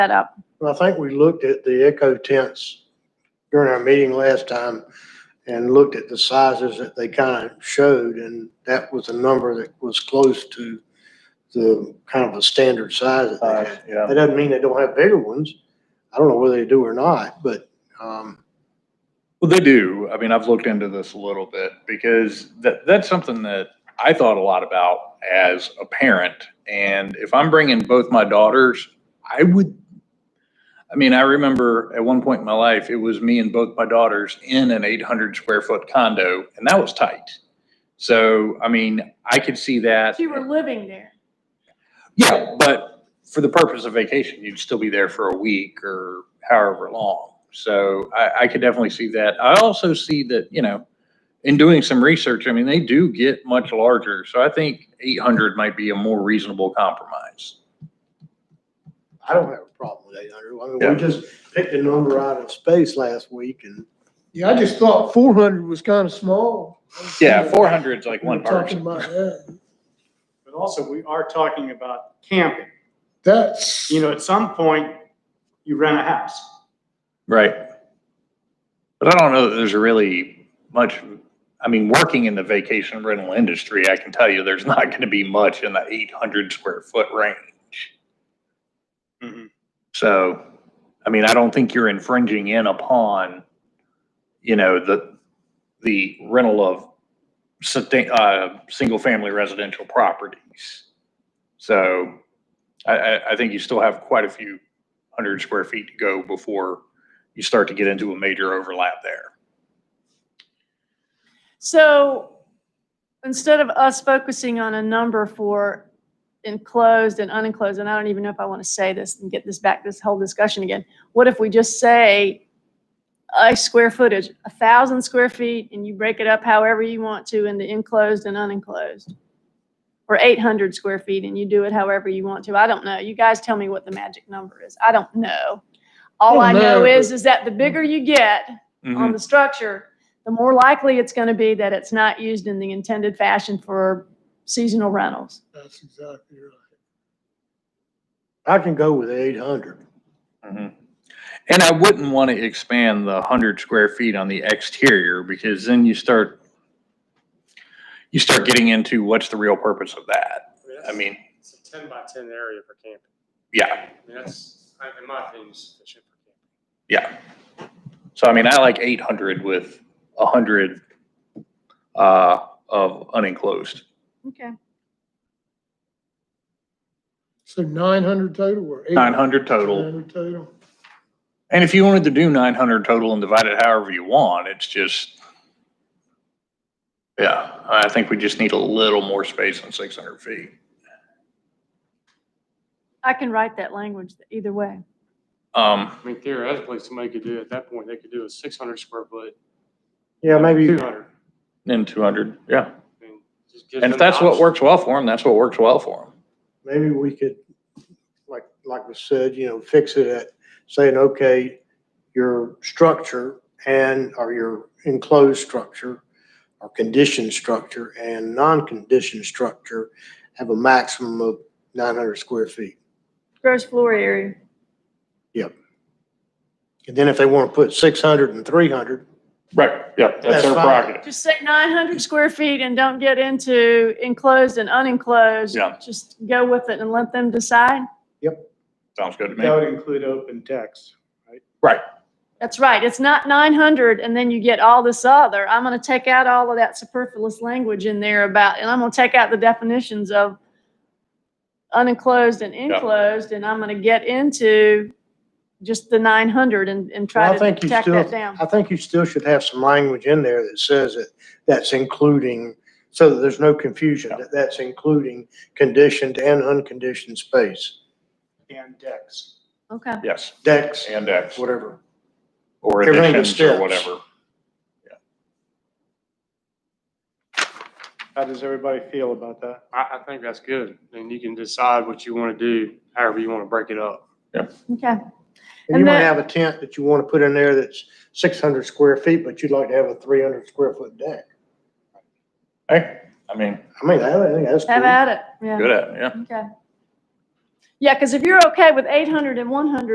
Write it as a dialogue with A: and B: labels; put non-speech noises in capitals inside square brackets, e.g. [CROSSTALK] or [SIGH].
A: set up.
B: Well, I think we looked at the echo tents during our meeting last time and looked at the sizes that they kind of showed, and that was a number that was close to the kind of a standard size that they
C: Uh,
B: had.
C: yeah,
B: That doesn't mean they don't have bigger ones. I don't know whether they do or not, but, um,
C: well, they do. I mean, I've looked into this a little bit because that, that's something that I thought a lot about as a parent. And if I'm bringing both my daughters, I would, I mean, I remember at one point in my life, it was me and both my daughters in an 800 square foot condo and that was tight. So, I mean, I could see that.
A: You were living there.
C: Yeah, but for the purpose of vacation, you'd still be there for a week or however long. So I, I could definitely see that. I also see that, you know, in doing some research, I mean, they do get much larger. So I think eight hundred might be a more reasonable compromise.
B: I don't have a problem with eight hundred. I mean,
C: Yeah.
B: we just picked a number out of space last week and
D: Yeah, I just thought four hundred was kind of small.
C: Yeah, four hundred's like one
D: We were Talking
C: person.
D: about that.
E: But also, we are talking about camping.
D: That's,
E: You know, at some point, you rent a house.
C: Right. But I don't know that there's really much, I mean, working in the vacation rental industry, I can tell you there's [LAUGHS] not going to be much in the eight hundred square foot range.
E: Mhm.
C: So, I mean, I don't think you're infringing in upon, you know, the, the rental of sustain, uh, single family residential properties. So I, I, I think you still have quite a few hundred square feet to go before you start to get into a major overlap there.
A: So instead of us focusing on a number for enclosed and unenclosed, and I don't even know if I want to say this and get this back, this whole discussion again. What if we just say a square footage, a thousand square feet, and you break it up however you want to into enclosed and unenclosed? Or eight hundred square feet and you do it however you want to. I don't know. You guys tell me what the magic number is. I don't know. All I know
D: Well, no,
A: is, is that the bigger you get,
C: Mm-hmm.
A: on the structure, the more likely it's going to be that it's not used in the intended fashion for seasonal rentals.
D: that's exactly right.
B: I can go with eight hundred.
C: Mhm. And I wouldn't want to expand the hundred square feet on the exterior because then you start, you start getting into what's the real purpose of that? I mean,
F: It's a ten by ten area for camping.
C: yeah,
F: I mean, that's, I- in my opinion, sufficient for camping.
C: yeah. So I mean, I like eight hundred with a hundred, uh, of unenclosed.
A: Okay.
D: So nine hundred total or eight?
C: Nine hundred total.
D: 900 total.
C: And if you wanted to do nine hundred total and divide it however you want, it's just. Yeah, I think we just need a little more space on six hundred feet.
A: I can write that language either way.
C: Um,
F: I mean, theoretically, somebody could do, at that point, they could do a six hundred square foot,
B: Yeah, maybe.
F: two hundred.
C: then two hundred, yeah. And if that's what works well for them, that's what works well for them.
B: maybe we could, like, like we said, you know, fix it at saying, okay, your structure and, or your enclosed structure or conditioned structure and non-conditioned structure have a maximum of nine hundred square feet.
A: Gross floor area.
B: And then if they want to put 600 and 300,
C: Right, yeah,
B: That's their fine. prerogative.
A: Just say nine hundred square feet and don't get into enclosed and unenclosed.
C: Yeah.
A: Just go with it and let them decide.
C: Sounds good to
E: That
C: me.
E: would include open decks.
A: That's right. It's not nine hundred and then you get all this other. I'm going to take out all of that superfluous language in there about, and I'm going to take out the definitions of unenclosed and enclosed, and I'm going to get into just the nine hundred and, and
B: Well,
A: try
B: I
A: to
B: think you
A: tack
B: still-
A: that down.
B: I think you still should have some language in there that says that that's including, so that there's no confusion, that that's including conditioned and unconditioned space,
E: And decks.
A: Okay.
C: Yes,
B: decks,
C: and X,
B: whatever.
C: or
B: Everything but
C: additions or
B: steps.
C: whatever.
E: How does everybody feel about that?
F: I, I think that's good. And you can decide what you want to do, however you want to break it up.
A: Okay.
B: And you
A: And
B: might
A: that-
B: have a tent that you want to put in there that's six hundred square feet, but you'd like to have a three hundred square foot deck.
C: Hey, I mean,
B: I mean, I think that's
A: Have
B: cool.
A: at it. Yeah.
C: good at, it, yeah.
A: Okay. Yeah, because if you're okay with 800 and 100.